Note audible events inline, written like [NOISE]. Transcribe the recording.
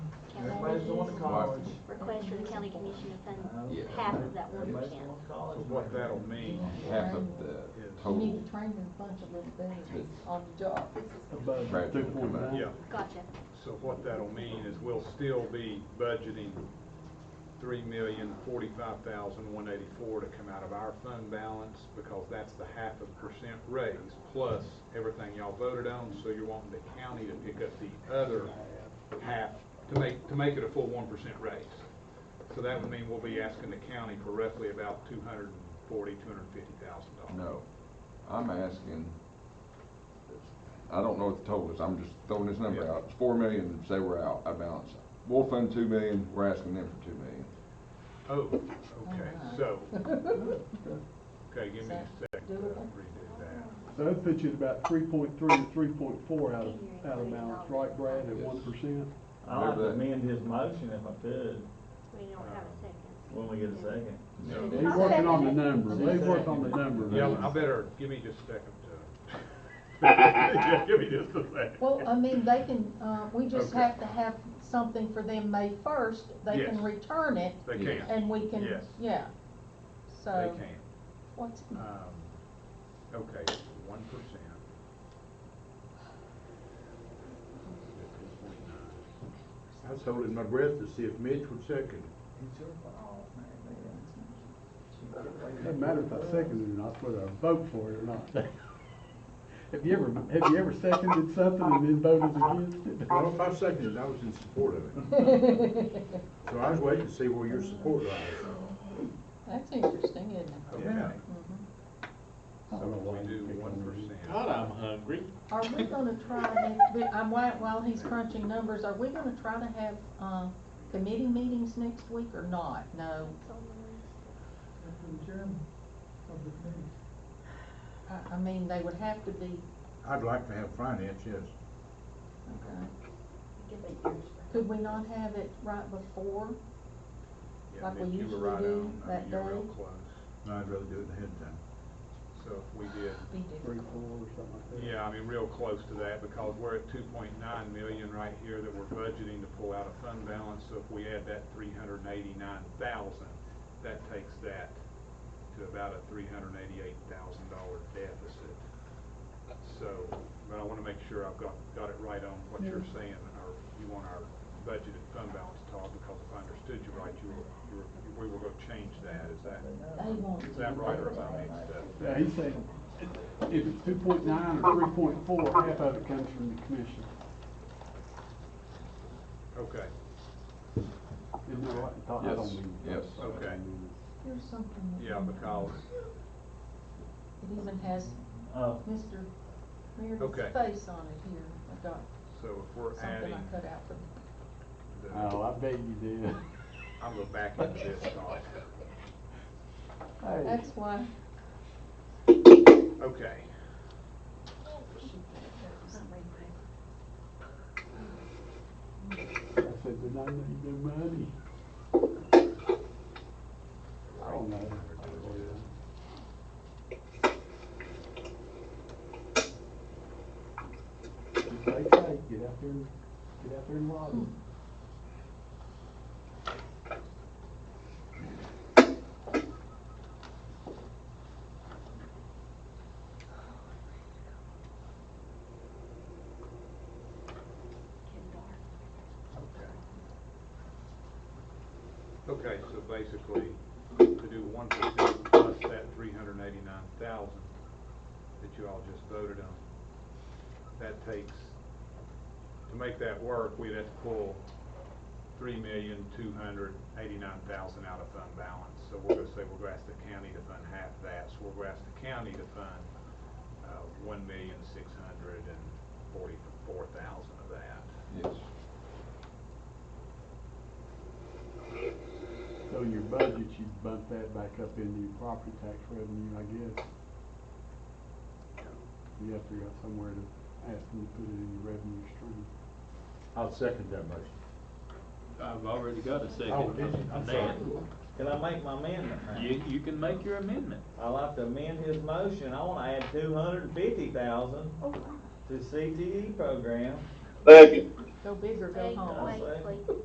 Everybody's going to college. request from the county commission to fund Yeah. half of that one Everybody's percent. going to college. What that'll mean half of the You total need to train this bunch of little things on the job. graduate will come out. Yeah, Gotcha. so what that'll mean is we'll still be budgeting three million forty-five thousand one eighty-four to come out of our fund balance, because that's the half of percent raise, plus everything y'all voted on, so you're wanting the county to pick up the other half to make, to make it a full one percent raise. So that would mean we'll be asking the county for roughly about two hundred and forty, two hundred and fifty thousand dollars. No, I'm asking, I don't know what the total is, I'm just throwing this number Yeah. out. It's four million, say we're out, I balance. We'll fund two million, we're asking them for two million. Oh, okay, so, okay, give me a second to Doable. redo that. So that puts you at about three point three to three point four out of, Eighty-eight out of million balance, right Brad, at Yes. one percent? I'd like to Remember that. amend his motion if I could, We don't have a second. when we get a second. They working on the number, they work on the number. Yeah, I better, give me just a second [LAUGHS] to. Yeah, give me just a second. Well, I mean, they can, uh, we just Okay. have to have something for them May first, they Yes. can return it, They Yeah. can, uh, and uh, we can, Yes. yeah. they So, can. [LAUGHS] what's, Um, okay, one percent. I was holding my breath to see if Mitch would second. Doesn't matter if I second it or not, whether I vote for it or not. Have you ever, have you ever seconded something and then voted against it? Well, if I seconded, I was in support of it. So I was waiting to see where your support lies. that's interesting, isn't it? Okay, Mhm. I don't know we why you do pick on one me. percent. I'm hungry. Are we gonna try, next- but I'm, while, while he's crunching numbers, are we gonna try to have, um, committee meetings next week or not? No, I, I mean, they would have to be, I'd like to have finance, yes. okay. Could we not have it right before? Yeah, Like we Mitch, you were usually right do on. I mean, that You're real day. close. No, I'd rather do it ahead of time. So if we did Be Three, difficult. four, or something like that. Yeah, I mean, real close to that, because we're at two point nine million right here that we're budgeting to pull out of fund balance, so if we add that three hundred and eighty-nine thousand, that takes that to about a three hundred and eighty-eight thousand dollar deficit. So, but I wanna make sure I've got, got it right on what you're saying, or you want our budgeted fund balance, Todd, because if I understood you right, you were, you were, we were gonna change that, is that, They won't. is that right, or am I mixed up? Yeah, he said, if it's two point nine or three point four, half of it comes from the commission. Okay, Isn't that right? Todd? I don't Yes, mean- yes. Okay. Here's something. that- yeah, because, It even has Uh, Mr. Okay. Meredith's face on it here. I got so if we're something adding. I cut out for the- Oh, I bet you did. [LAUGHS] I'm gonna back into this talk. Hey. That's why. Okay, I said, did I need the money? I don't know. Just Stay tight, get out there, and- get out there and lobby. okay. Okay, so basically, to do one percent plus that three hundred and eighty-nine thousand that you all just voted on, that takes, to make that work, we'd have to pull three million, two hundred, eighty-nine thousand out of fund balance. So we're gonna say we're gonna ask the county to fund half that, so we're gonna ask the county to fund, uh, one million, six hundred and forty-four thousand of that. Yes, So in your budget, you bump that back up into your property tax revenue, I guess. You have to go somewhere to ask them to put it in your revenue stream. I'll second that motion. I've already got a Oh, second. did you? I'm sorry. Dan, Can I make my amendment now? you, you can make your amendment. I'd like to amend his motion, I wanna add two hundred and fifty thousand Oh, to CTE program. Go big or go Wait, home. wait, wait.